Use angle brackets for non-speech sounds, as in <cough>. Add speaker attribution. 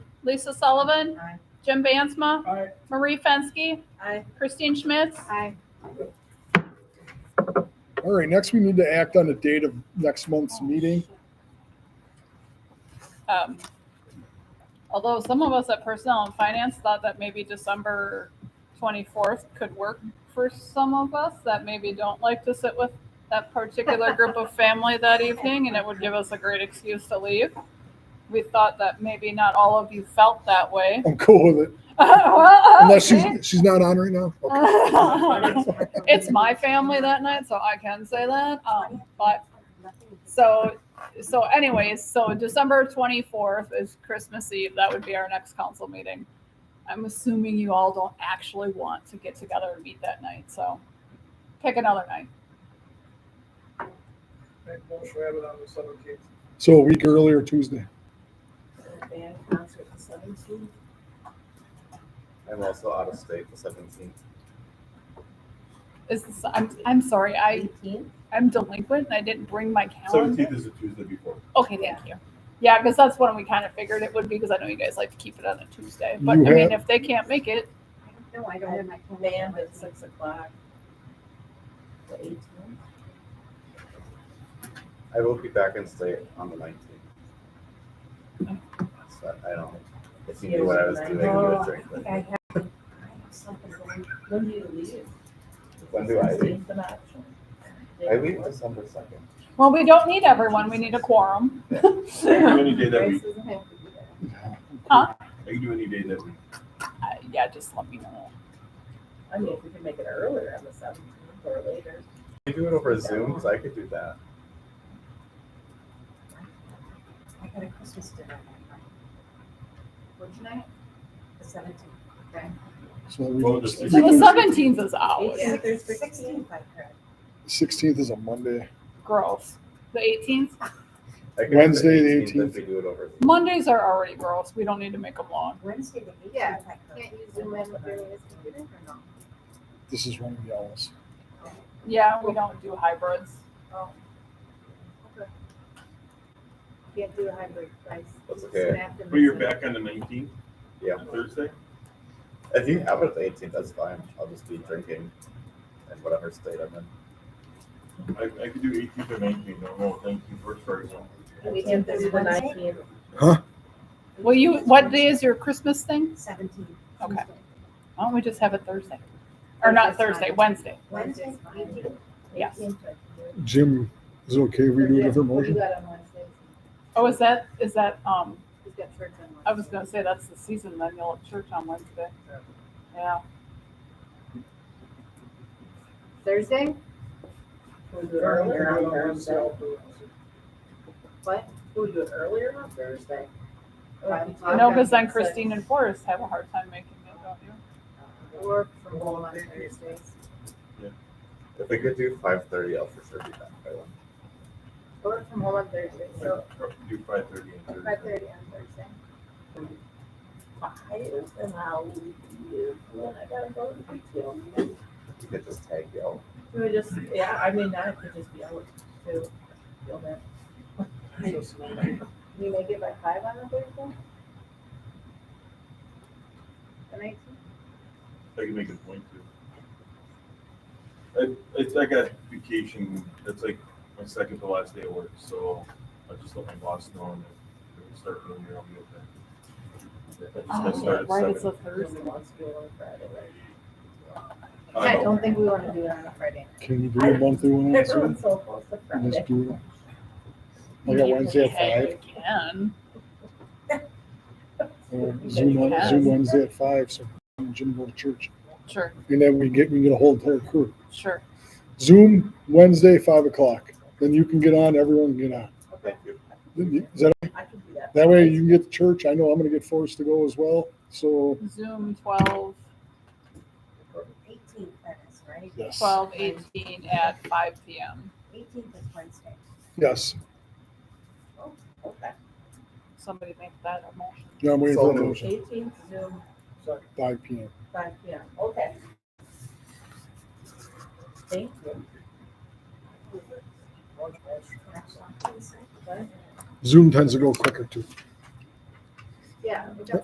Speaker 1: Lisa Sullivan.
Speaker 2: Aye.
Speaker 1: Jim Bansma.
Speaker 3: Aye.
Speaker 1: Marie Fenske.
Speaker 2: Aye.
Speaker 1: Christine Schmitz.
Speaker 2: Aye.
Speaker 3: All right, next we need to act on the date of next month's meeting.
Speaker 1: Um, Although some of us at Personnel and Finance thought that maybe December 24th could work for some of us that maybe don't like to sit with that particular group of family that evening, and it would give us a great excuse to leave. We thought that maybe not all of you felt that way. <laughs>
Speaker 3: I'm cool with it.
Speaker 2: Oh,
Speaker 3: Unless
Speaker 1: Unless
Speaker 3: she's, she's not on right now. Okay.
Speaker 1: It's my family that night, so I can say that, um, but So, so anyways, so December twenty-fourth is Christmas Eve. That would be our next council meeting. I'm assuming you all don't actually want to get together and meet that night, so pick another night.
Speaker 4: Make motion, we have it on the seventeenth.
Speaker 3: So a week earlier Tuesday.
Speaker 2: Band concert the seventeenth.
Speaker 5: I'm also out of state the seventeenth.
Speaker 1: Is this, I'm, I'm sorry, I, I'm delinquent and I didn't bring my calendar.
Speaker 6: Seventeenth is the Tuesday before.
Speaker 1: Okay, thank you. Yeah, because that's when we kind of figured it would be, because I know you guys like to keep it on a Tuesday. But I
Speaker 3: You
Speaker 1: mean,
Speaker 3: have-
Speaker 1: if they can't make it,
Speaker 2: No, I don't have my band at six o'clock. The eighteenth.
Speaker 5: I will be back in state on the nineteenth. So I don't, if you knew what I was doing, you would drink.
Speaker 2: I think I have, I
Speaker 5: but-
Speaker 2: have something going, when do you leave?
Speaker 5: When do I leave?
Speaker 2: Sixteenth of October.
Speaker 5: I leave December second.
Speaker 1: well, we don't need everyone. We need a quorum. Uh,
Speaker 6: I can do any day that
Speaker 2: Grace
Speaker 6: week.
Speaker 2: doesn't have to be there.
Speaker 6: I can do any day that week.
Speaker 1: Uh, Yeah, just let me know.
Speaker 2: I mean, if we can make it earlier on the seventeenth or later.
Speaker 5: You do it over Zoom, so I could do that.
Speaker 2: I got a Christmas dinner. What's tonight? The seventeenth. Okay.
Speaker 3: So we
Speaker 6: Well,
Speaker 3: do-
Speaker 6: the
Speaker 3: we
Speaker 1: So the
Speaker 3: do-
Speaker 1: seventeenth is out.
Speaker 2: Oh, Yeah, there's sixteen. I heard.
Speaker 3: 16th is a Monday.
Speaker 1: gross. The 18th,
Speaker 5: I could do
Speaker 3: Wednesday, the 18th.
Speaker 5: If we do it over. Zoom.
Speaker 1: Mondays are already gross. We don't need to make them long.
Speaker 2: Wednesday the eighteenth.
Speaker 7: Yeah,
Speaker 2: I heard.
Speaker 7: Can't you zoom in with your latest computer or no?
Speaker 3: This is one of the hours.
Speaker 1: Yeah, we don't do hybrids.
Speaker 7: Can't do a hybrid price.
Speaker 5: That's okay.
Speaker 6: But you're back on the nineteenth,
Speaker 5: Yeah,
Speaker 6: Thursday?
Speaker 5: if you have it the eighteenth, that's fine. I'll just be drinking in whatever state I'm in.
Speaker 6: I, I could do eighteenth or nineteenth, I don't know, nineteenth works for everyone.
Speaker 7: We can do the nineteenth.
Speaker 1: Well, you, what day is your Christmas thing?
Speaker 7: Seventeenth.
Speaker 1: Okay. Why don't we just have it Thursday? Or not
Speaker 7: Thursday's
Speaker 1: Thursday,
Speaker 7: fine.
Speaker 1: Wednesday.
Speaker 7: Wednesday, eighteenth.
Speaker 1: Yes.
Speaker 3: Jim, is it okay if we do a different
Speaker 7: We
Speaker 3: motion?
Speaker 7: got on Wednesday.
Speaker 1: Oh, is that, is that, um,
Speaker 7: We've got church on Wednesday.
Speaker 1: I was gonna say that's the season, then you'll have church on Wednesday. Yeah.
Speaker 7: Thursday?
Speaker 2: Can we do it earlier on Thursday?
Speaker 7: What?
Speaker 2: Can we do it earlier on Thursday? Uh,
Speaker 7: Five o'clock
Speaker 1: No,
Speaker 7: on
Speaker 1: because then
Speaker 7: Wednesday.
Speaker 1: Christine and Forrest have a hard time making it, don't you?
Speaker 7: Work from home on Thursdays.
Speaker 5: If we could do five thirty, I'll for sure be back by one.
Speaker 7: Work from home on Thursdays, so
Speaker 6: Do five thirty and Thursday.
Speaker 7: five thirty on Thursday.
Speaker 2: Five, and I'll leave you when I gotta go to the field.
Speaker 5: You could just tag y'all.
Speaker 2: We would just, yeah, I mean, I could just be able to feel that.
Speaker 7: Can you make it by five on the Thursday? The nineteenth?
Speaker 6: I can make a point too. I, it's, I got vacation, that's like my second to last day of work, so I just let my boss know and if we start earlier, I'll be okay. I just got
Speaker 7: Oh,
Speaker 6: started
Speaker 1: Right, it's a
Speaker 6: seven.
Speaker 1: Thursday.
Speaker 2: Nobody wants to do it on Friday, right?
Speaker 6: I
Speaker 7: I
Speaker 6: know.
Speaker 7: don't think we wanna do it on a Friday.
Speaker 3: Can you do it monthly one last week?
Speaker 2: <laughs> Everyone's so close to
Speaker 3: And
Speaker 2: Friday.
Speaker 3: just do it? I got Oh, Wednesday at
Speaker 1: Hey,
Speaker 3: five.
Speaker 1: you can.
Speaker 3: um, Zoom, on- Zoom Wednesday at five, so Jim go to church.
Speaker 1: Sure,
Speaker 3: And then we get, we get a whole entire crew.
Speaker 1: sure.
Speaker 3: Zoom Wednesday, five o'clock. Then you can get on, everyone can get on.
Speaker 5: Thank you.
Speaker 3: Is that,
Speaker 2: I could do that.
Speaker 3: that way you can get to church. I know I'm gonna get forced to go as well, so,
Speaker 1: Zoom twelve,
Speaker 7: Eighteenth, that is, right?
Speaker 3: yes.
Speaker 1: twelve eighteen at five PM.
Speaker 7: Eighteenth is Wednesday.
Speaker 3: Yes,
Speaker 2: Okay.
Speaker 1: Somebody make that a motion.
Speaker 3: now I'm waiting for the motion,
Speaker 2: Eighteenth Zoom,
Speaker 3: five P M.
Speaker 2: five P M, okay. Thank you.
Speaker 3: Zoom tends to go quicker too.
Speaker 7: Yeah. we got